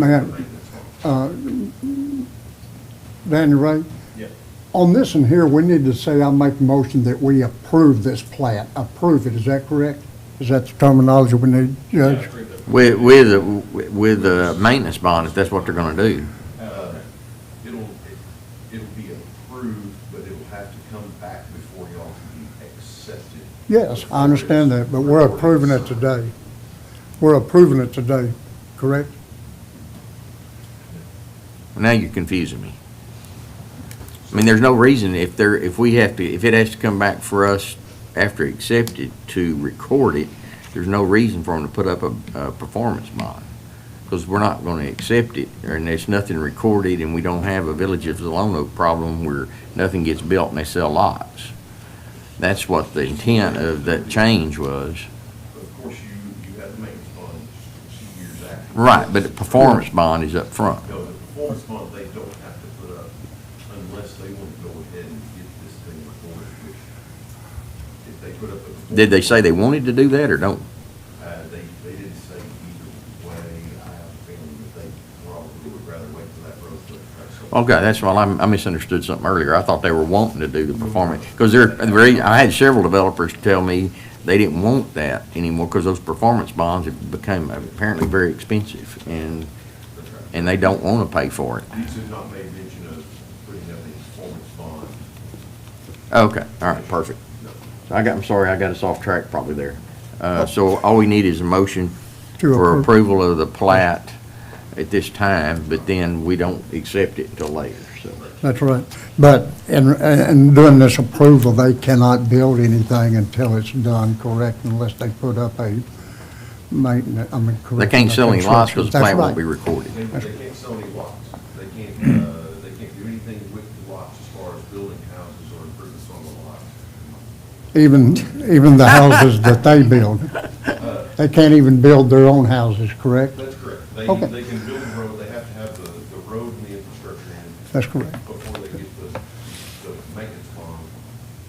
Man, uh, Danny Ray, Yeah. on this one here, we need to say, I make a motion that we approve this plat, approve it, is that correct? Is that the terminology we need, Judge? With, with, a- with a maintenance bond, if that's what they're gonna do. Uh, It'll, it'll be approved, but it'll have to come back before y'all can be accepted. Yes, I understand that, but we're approving it today. We're approving it today, correct? Now you're confusing me. I mean, there's no reason if there, if we have to, if it has to come back for us after accepted to record it, there's no reason for them to put up a, a performance bond. Because we're not gonna accept it, and there's nothing recorded, and we don't have a Village of Zalona problem where nothing gets built and they sell lots. That's what the intent of that change was. But of course, you, you have the maintenance bond two years after. Right, but the performance bond is up front. No, the performance bond, they don't have to put up unless they want to go ahead and get this thing recorded, which if they put up a. performance Did they say they wanted to do that or don't? Uh, they, they didn't say either way. I have a feeling that they probably would rather wait for that road to. that's all. Okay, that's why I'm- I misunderstood something earlier. I thought they were wanting to do the performance. Because they're, the rea- I had several developers tell me they didn't want that anymore because those performance bonds have become apparently very expensive and, That's right. and they don't want to pay for it. These have not made mention of putting up a performance bond. Okay, all right, perfect. No. So I got, I'm sorry, I got us off track probably there. Uh, so all we need is a motion To for approve. approval of the plat at this time, but then we don't accept it until later, so. That's right. But in, in doing this approval, they cannot build anything until it's done, correct, unless they put up a maintenance, I mean, correct. They can't sell any lots because the That's plant won't right. be recorded. They, they can't sell any lots. They can't, uh, they can't do anything with the lots as far as building houses or improvements on the lots. Even, even the houses that they build. They can't even build their own houses, correct? That's correct. They, Okay. they can build the road, they have to have the, the road and the infrastructure in That's correct. before they get the, the maintenance bond,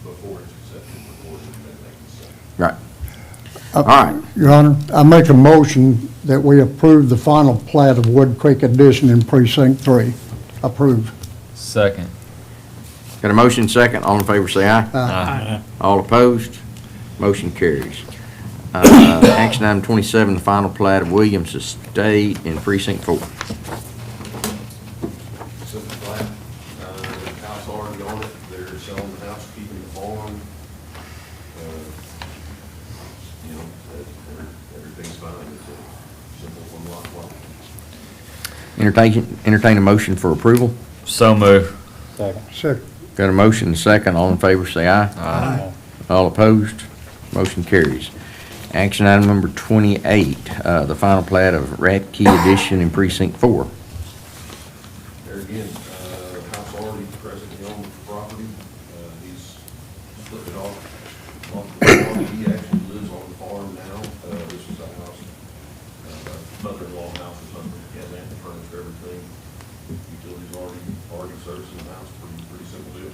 before it's accepted, before it's, then they can sell. Right. All right. Uh, Your Honor, I make a motion that we approve the final plat of Wood Creek Addition in Precinct Three. Approved. Second. Got a motion second, all in favor say aye. All opposed, motion carries. Uh, Action item 27, the final plat of Williams Estate in Precinct 4. simple flat. Uh, the house already on it, they're selling the house, keeping the farm. Uh, You know, that- every- everything's fine, it's a simple one lot lot. Entertain, entertain a motion for approval. So move. Second. Got a motion second, all in favor say aye. Aye. All opposed, motion carries. Action item number 28, uh, the final plat of Ratkey Addition in Precinct 4. There again, uh, house already presently on the property, uh, he's split it off. off the farm. He actually lives on the farm now, uh, this is a house, uh, mother-in-law house or something, he has ample furniture, everything. Utilities already, already servicing the house, pretty, pretty simple deal.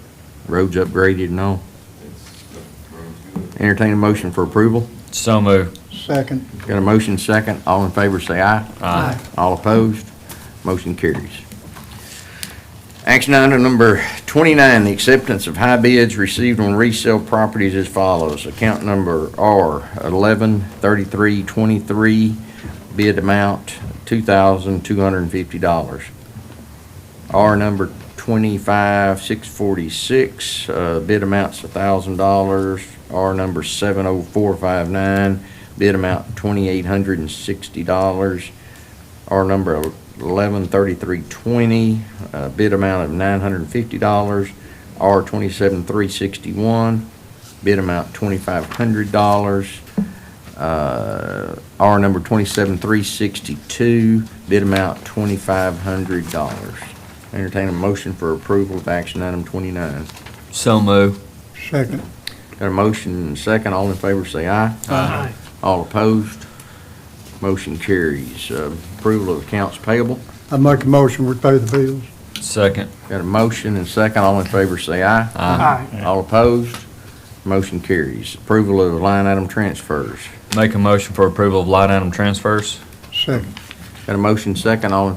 Roads upgraded and all. It's, uh, the road's good. Entertain a motion for approval. So move. Second. Got a motion second, all in favor say aye. Aye. All opposed, motion carries. Action item number 29, the acceptance of high bids received on resale properties as follows. Account number R113323, bid amount $2,250. R number 25646, uh, bid amount's $1,000. R number 70459, bid amount $2,860. R number 113320, uh, bid amount of $950. R 27361, bid amount $2,500. Uh, R number 27362, bid amount $2,500. Entertain a motion for approval of action item 29. So move. Second. Got a motion and a second, all in favor say aye. Aye. All opposed, motion carries. Uh, Approval of accounts payable. I make a motion, we pay the bills. Second. Got a motion and a second, all in favor say aye. Aye. All opposed, motion carries. Approval of line item transfers. Make a motion for approval of line item transfers. Second. Got a motion second, all in